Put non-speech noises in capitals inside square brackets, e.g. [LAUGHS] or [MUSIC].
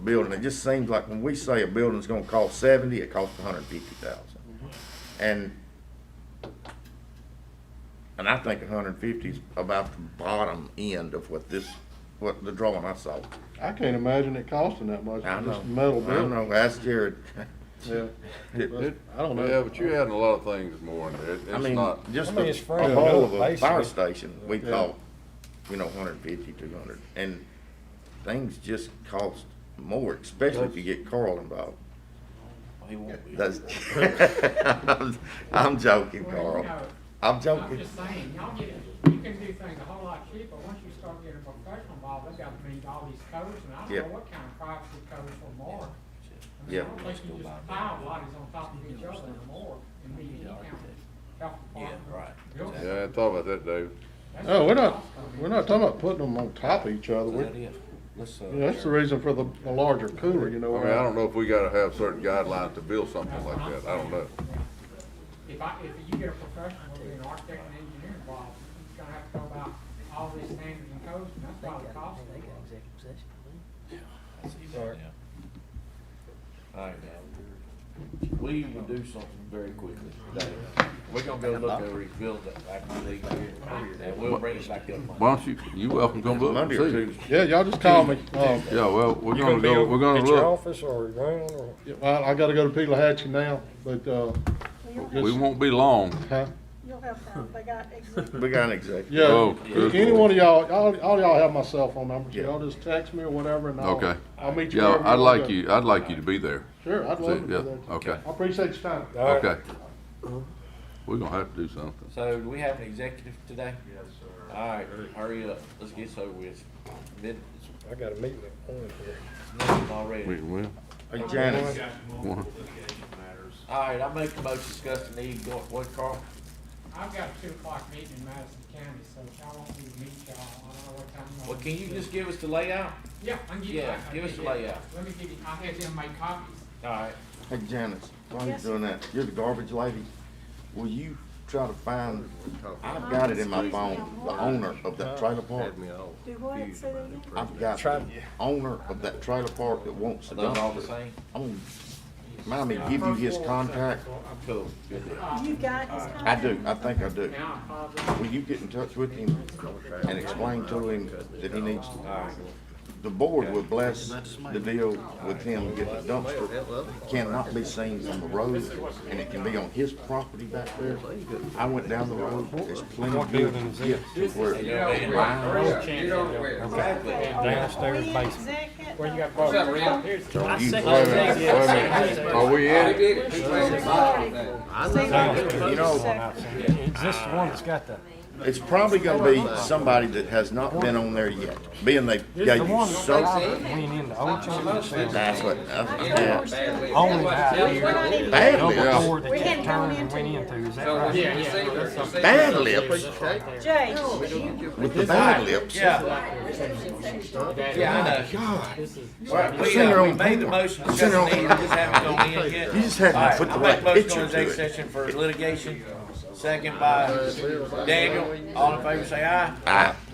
building. It just seems like when we say a building's gonna cost seventy, it costs hundred and fifty thousand. And, and I think hundred and fifty's about the bottom end of what this, what the drawing I saw. I can't imagine it costing that much, I for know, just metal I building. know, ask Jared. Yeah. It- I don't know. Yeah, but you're adding a lot of things more in there. It- I It's mean, not, just I mean, the it's free to a whole of do, a fire basically. station, we Yeah. thought, you know, hundred and fifty, two hundred, and things just cost more, especially if you get Carl involved. Oh, He won't be. That's, [LAUGHS] I'm- I'm joking, Well, Carl. you know, I'm I'm joking. just saying, y'all get, you can do things a whole lot cheaper, once you start getting professional involved, they've got to meet all these codes, and I Yeah. don't know what kind of privacy codes for more. I mean, Yeah. I don't think you just pile bodies on top of each other anymore, and be any kind of health department. Yeah, right. building. yeah, I thought about that, Dave. That's No, Oh, we're what it not, costs, I mean. we're not talking about putting them on top of each other. Is that We're- it? Let's, uh, yeah, That's the reason for the, the larger cooler, you I know. mean, I don't know if we gotta have certain guidelines to build something That's like what I'm that. I don't know. saying. If I, if you get a professional, with an architect and engineer involved, he's gonna have to go about all these standards and codes, and that's why the cost. is what it is. That's easy, yeah. All right, now, we will do something very quickly today. We're gonna go look over his building back in the league here, and we'll bring it back up. Monday. Why don't you, you welcome to come look and Monday or see. Tuesday. Yeah, y'all just call me. Um, Yeah, well, we're You gonna be go, over we're gonna At your look. office or around or? yeah, well, I gotta go to Pelahatchie now, but, uh, We won't be long. huh? You'll have time, they got exec- We got an executive. Yeah, Oh, good any Lord. one of y'all, all, all y'all have my cell phone number. Yeah. Y'all just text me or whatever and I'll, Okay. I'll meet you. Yeah, wherever I'd wanna like go. you, I'd like you to be there. Sure, I'd See, love to do yeah, that. okay, I appreciate your time. All right. okay. We're gonna have to do something. So do we have an executive today? Yes, sir. All right, hurry up, let's get this over with. Mid, I got a meeting at one here. it's already. We will. Hey, Janice, All right, I make a motion discussing the need, go, what, Carl? I've got a two o'clock meeting in Madison County, so if y'all want me to meet y'all, I don't know what time. y'all Well, want can me you to- just give us the layout? Yeah, I can give you. Yeah, I- I give us the can you- layout. Let me give you, I had them make copies. All right. hey, Janice, while you're Yes. doing that, you're the garbage lady. Will you try to find, I've got it in my phone, the owner of that trailer park. do what, say that again? I've got the owner of that trailer park that wants to Are those all the dumpster. same? On, mind me, give you his contact? Cool, good deal. You got his contact? I do, I think I do. Now, I apologize. Will you get in touch with him and explain to him that he needs to? The board would bless the deal with him getting the dumpster. Cannot be seen from the road and it can be on his property back there. I went down the road, there's plenty of buildings here where it lines. Exactly. Okay, are we- Downstairs are we in basement. exec at Where you the- got bars? Where's the phone? You- Wait a minute, wait a minute. Are we in it? You know, Is this the one that's got the? It's probably gonna be somebody that has not been on there yet, being they gave you so. Went in the old church. That's what, that's- I know uh, yeah. uh, we're still in Only exec. highway. We're not even- Bad Double lips, door that We you hadn't turned gone and went into into, is that right? Yeah, yeah. bad lips, Jay, uh, with the bad lips. Yeah. Yeah, I know. Right, We, send her uh, we on made the porn. motion Send her discussing on the need, we just haven't gone in yet. You just had to All right, put the I right make motion on picture to executive it. Session Ah. for litigation, second by Daniel, all in favor say aye.